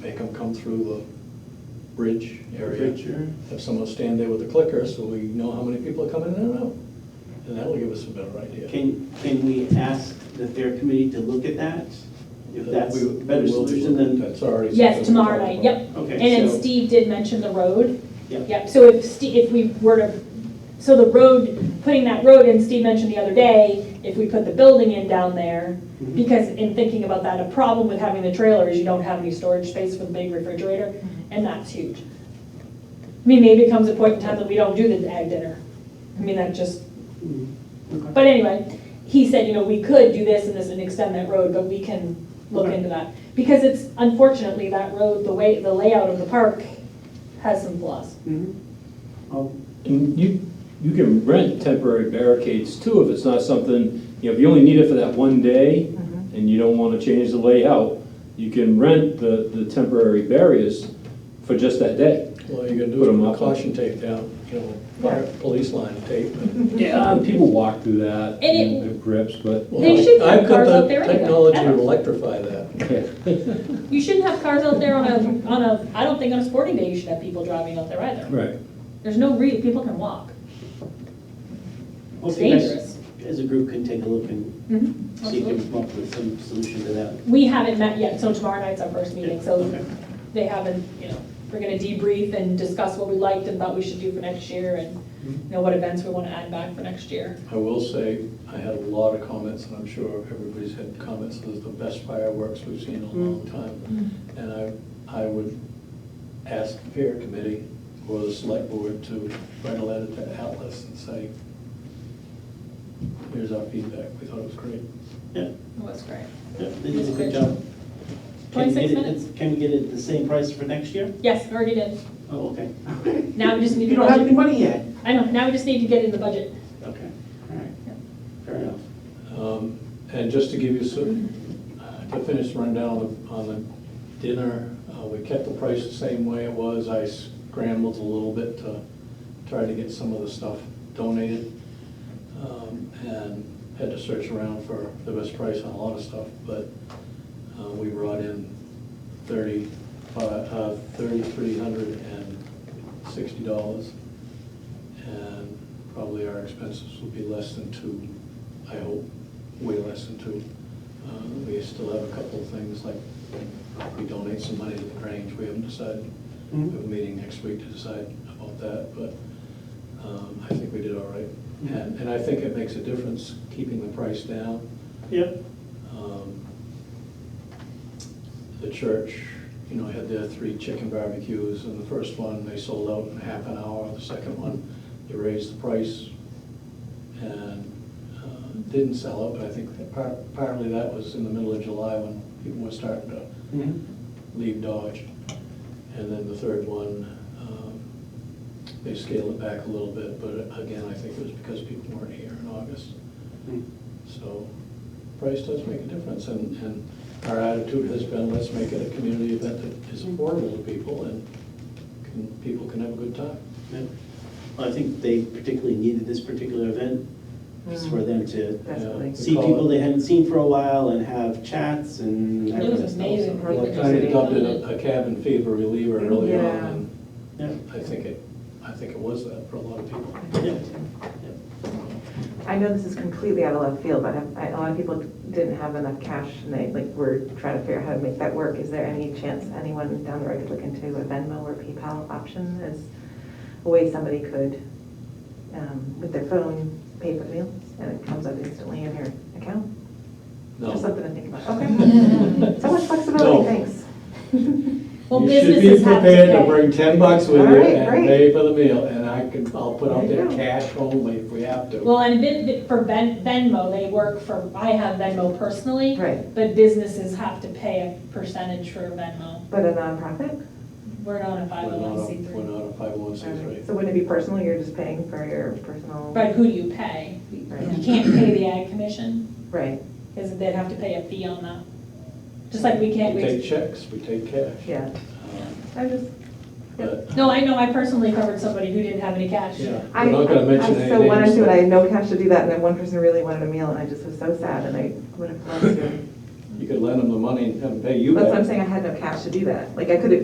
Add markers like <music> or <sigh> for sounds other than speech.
make them come through the bridge area. Bridge area. Have someone stand there with a clicker so we know how many people are coming in and out. And that'll give us a better idea. Can, can we ask the fair committee to look at that? If that's a We- we better will- solution than, That's already. Yes, something we tomorrow talked night, about. yep. okay, And then so- Steve did mention the road. Yep. Yep, so if Steve, if we were to, so the road, putting that road in, Steve mentioned the other day, if we put the building in down there, Mhm. because in thinking about that, a problem with having the trailer is you don't have any storage space for the big refrigerator, Mm-hmm. and that's huge. I mean, maybe it comes a point in time that we don't do the ag dinner. I mean, that just, Mhm. Okay. but anyway, he said, you know, we could do this and this and extend that road, but we can look Okay. into that. Because it's unfortunately, that road, the way, the layout of the park has some flaws. Mhm. I'll- And you, you can rent temporary barricades too, if it's not something, you know, if you only need it for that one day and you don't wanna change the layout, you can rent the, the temporary barriers for just that day. Well, you can Put do it 'em with up. caution tape down, you know, fire, police line tape. Yeah, and people walk through that And it- and their grips, but. <laughs> They should have I've got cars the out there anyway. Technology Ever. to electrify that. You shouldn't have cars out there on a, on a, I don't think on a sporting day you should have people driving out there either. Right. There's no reason, people can walk. I'll It's see you guys- dangerous. Mm-hmm. As a group can take a look and see if we can Absolutely. come up with some solution to that. We haven't met yet, so tomorrow night's our first meeting, so Okay. they haven't, you know, we're gonna debrief and discuss what we liked and thought we should do for next year and Mm-hmm. you know what events we wanna add back for next year. I will say, I had a lot of comments, and I'm sure everybody's had comments, this is the best fireworks we've seen in a long time. And I, I would ask the fair committee or the select board to write a letter to Atlas and say, here's our feedback, we thought it was great. Yeah, It was great. yeah, they did a good job. Can we 26 get it- minutes. Can we get it the same price for next year? Yes, we already did. Oh, okay. Now we just need You to don't have any budget. money yet. I know, now we just need to get in the budget. Okay, all right, Yeah. fair enough. Um, And just to give you some, uh, to finish the rundown on the- on the dinner, uh, we kept the price the same way it was. I scrambled a little bit to try to get some of the stuff donated. um, And had to search around for the best price on a lot of stuff, but uh, we brought in thirty-five, uh, thirty-three hundred and sixty dollars. And probably our expenses will be less than two, I hope, way less than two. Uh, We still have a couple of things, like we donate some money to the Grange, we haven't decided. We have a meeting next week to decide about that, but um, I think we did all right. And, and I think it makes a difference keeping the price down. Yep. Um, The church, you know, had their three chicken barbecues, and the first one, they sold out in half an hour. The second one, they raised the price and uh, didn't sell out, but I think that par- partly that was in the middle of July when people were starting to Mm-hmm. leave Dodge. And then the third one, um, they scaled it back a little bit, but again, I think it was because people weren't here in August. Mm-hmm. So price does make a difference, and, and our attitude has been, let's make it a community event that Mm-hmm. is affordable to people, and can, people can have a good time. Yep. Well, I think they particularly needed this particular event, just Mm. for them to Definitely. see people they hadn't seen for a while and have chats and. that It kind was of stuff. amazing. So, I dubbed it a- a cabin fever reliever early on, and Yeah, I think it, I think it was that for a lot of people. yeah. I know this is completely out of left field, but I- I- a lot of people didn't have enough cash and they, like, were trying to figure out how to make that work. Is there any chance anyone down the road could look into a Venmo or PayPal option as a way somebody could, um, with their phone, pay for meals and it comes up instantly in your account? No. Just something to think about. <laughs> Okay. So much No. flexibility, thanks. Well, You should be businesses have to prepared to pay. bring ten bucks with you Alright, and great. pay for the meal, and I can, I'll put out There there you go. cash only if we have to. Well, and Ven- Ven- for Ven- Venmo, they work for, I have Venmo personally. Right. But businesses have to pay a percentage for Venmo. But a nonprofit? We're not We're not a a- 501c3. We're not a five oh one C three. So wouldn't it be personal? You're just paying for your personal? But who do you pay? Right. You can't pay the ag commission, Right, because they'd have to pay a fee on that. Just like we can't, We take we, checks, we take cash. yeah. Um, I just, But no, I know, I personally covered somebody who didn't have any cash. Yeah, I, we're not gonna I mention I any so wanted names, to, and I but- had no cash to do that, and then one person really wanted a meal, and I just was so sad, and I would have loved to You could lend them the money and have them pay you back. That's what I'm saying, I had no cash to do that. Like, I could have